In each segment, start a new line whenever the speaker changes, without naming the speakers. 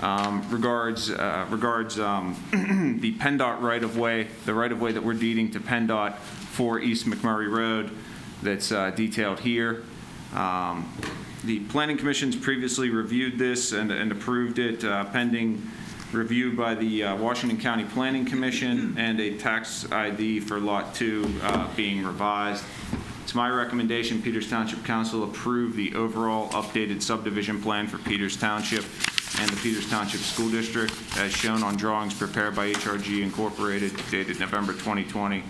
um, regards, uh, regards um, the PennDOT right-of-way, the right-of-way that we're deeding to PennDOT for East McMurray Road that's uh, detailed here. Um, The Planning Commission's previously reviewed this and and approved it uh, pending review by the uh, Washington County Planning Commission and a tax ID for Lot 2 uh, being revised. It's my recommendation Peters Township Council approve the overall updated subdivision plan for Peters Township and the Peters Township School District as shown on drawings prepared by HRG Incorporated dated November 2020,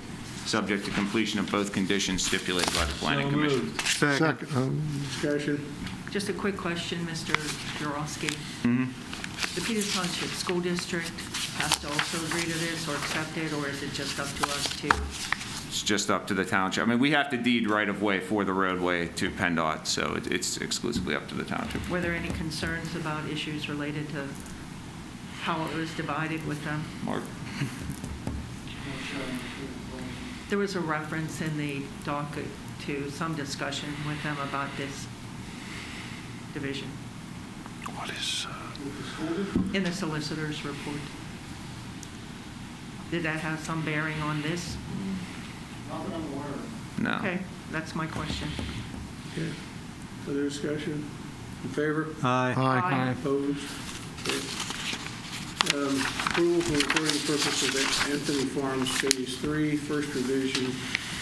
subject to completion of both conditions stipulated by the Planning
So
Commission.
moved.
Second. um,
Discussion.
Just a quick question, Mr. Jurovsky.
Mm-hmm.
The Peters Township School District has to also agree to this or accept it, or is it just up to us to?
It's just up to the township. I mean, we have to deed right-of-way for the roadway to PennDOT, so it- it's exclusively up to the township.
Were there any concerns about issues related to how it was divided with them?
Mark?
There was a reference in the docket to some discussion with them about this division in the solicitor's report. Did that have some bearing on this?
No.
Okay, that's my question.
Okay. Other discussion? In favor?
Aye.
Opposed? Okay. Um, Approval for recording purposes of Anthony Farms Phase 3, first revision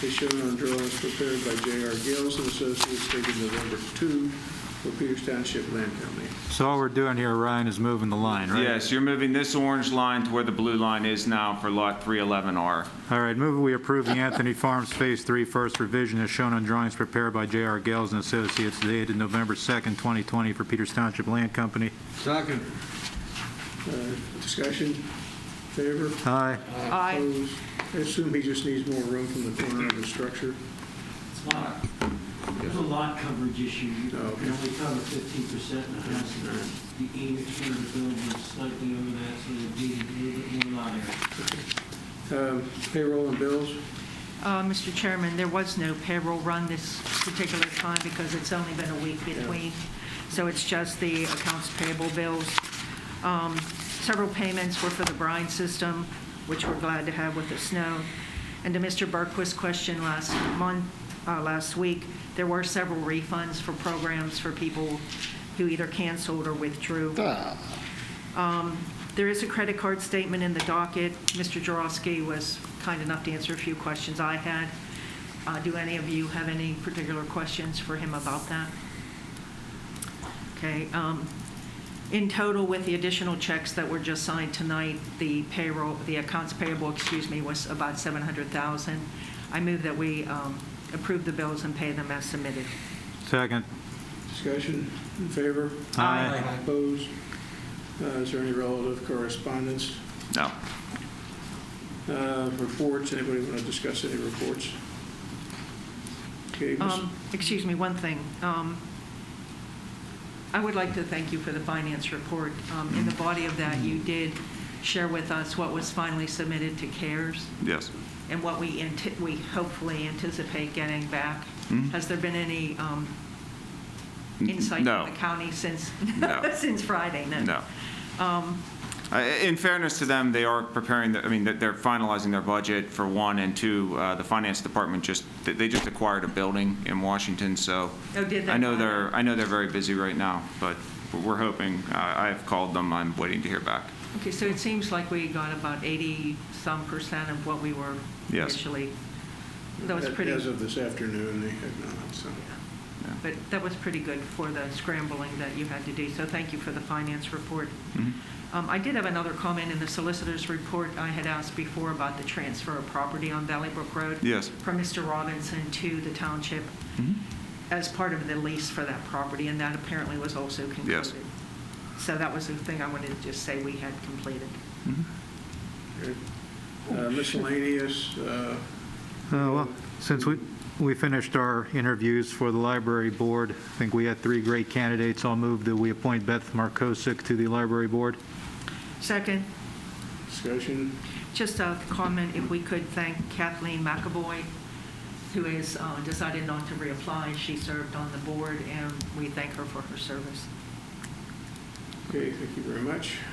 is shown on drawings prepared by J.R. Gales and Associates dated November 2 for Peters Township Land Company.
So all we're doing here, Ryan, is moving the line, right?
Yes, you're moving this orange line to where the blue line is now for Lot 311R.
All right, move we approve the Anthony Farms Phase 3 first revision as shown on drawings prepared by J.R. Gales and Associates dated November 2nd, 2020 for Peters Township Land Company.
Second. Uh, Discussion? In Favor?
Aye.
Aye.
Opposed? I assume he just needs more room from the corner of the structure.
Lot- There's a lot coverage issue. You can
Oh, okay.
only cover fifteen percent in the house. and The the age of the building is slightly over that, so there'd be a little bit more lot area.
Um, Payroll and bills?
Uh, Mr. Chairman, there was no payroll run this particular time because it's only been a week between, so it's just the accounts payable bills. Um, Several payments were for the brine system, which we're glad to have with the snow. And to Mr. Berquist's question last month, uh, last week, there were several refunds for programs for people who either canceled or withdrew. There is a credit card statement in the docket. Mr. Jarowski was kind enough to answer a few questions I had. Uh, Do any of you have any particular questions for him about that? Okay. um, In total, with the additional checks that were just signed tonight, the payroll, the accounts payable, excuse me, was about 700,000. I move that we um, approve the bills and pay them as submitted.
Second.
Discussion? In favor?
Aye.
Opposed? Uh, Is there any relative correspondence?
No.
Uh, Reports, anybody want to discuss any reports? Okay, Ms.
Um, Excuse me, one thing. Um, I would like to thank you for the finance report. Um, In the body of that, you did share with us what was finally submitted to CARES
Yes.
and what we, ante- we hopefully anticipate getting back.
Mhm.
Has there been any um, insight
No.
from the county since,
No.
since Friday?
No.
Um,
I- In fairness to them, they are preparing, the- I mean, they're finalizing their budget for one, and two, uh, the finance department just, they- they just acquired a building in Washington, so.
Oh, did they?
I know they're, I know they're very busy right now, but we're hoping, uh, I- I've called them, I'm waiting to hear back.
Okay, so it seems like we got about 80-some percent of what we were
Yes.
initially. That was pretty.
As of this afternoon, they had not, so.
But that was pretty good for the scrambling that you had to do, so thank you for the finance report. Um, I did have another comment in the solicitor's report. I had asked before about the transfer of property on Valley Brook Road.
Yes.
From Mr. Robinson to the township as part of the lease for that property, and that apparently was also concluded.
Yes.
So that was the thing I wanted to just say we had completed.
okay. Uh, Miscellaneous, uh,
Uh, Well, since we, we finished our interviews for the library board, I think we had three great candidates. I'll move that we appoint Beth Markosik to the library board.
Second,
discussion,
Just a comment, if we could thank Kathleen McAvoy, who has uh, decided not to reapply. She served on the board, and we thank her for her service.
Okay, thank you very much.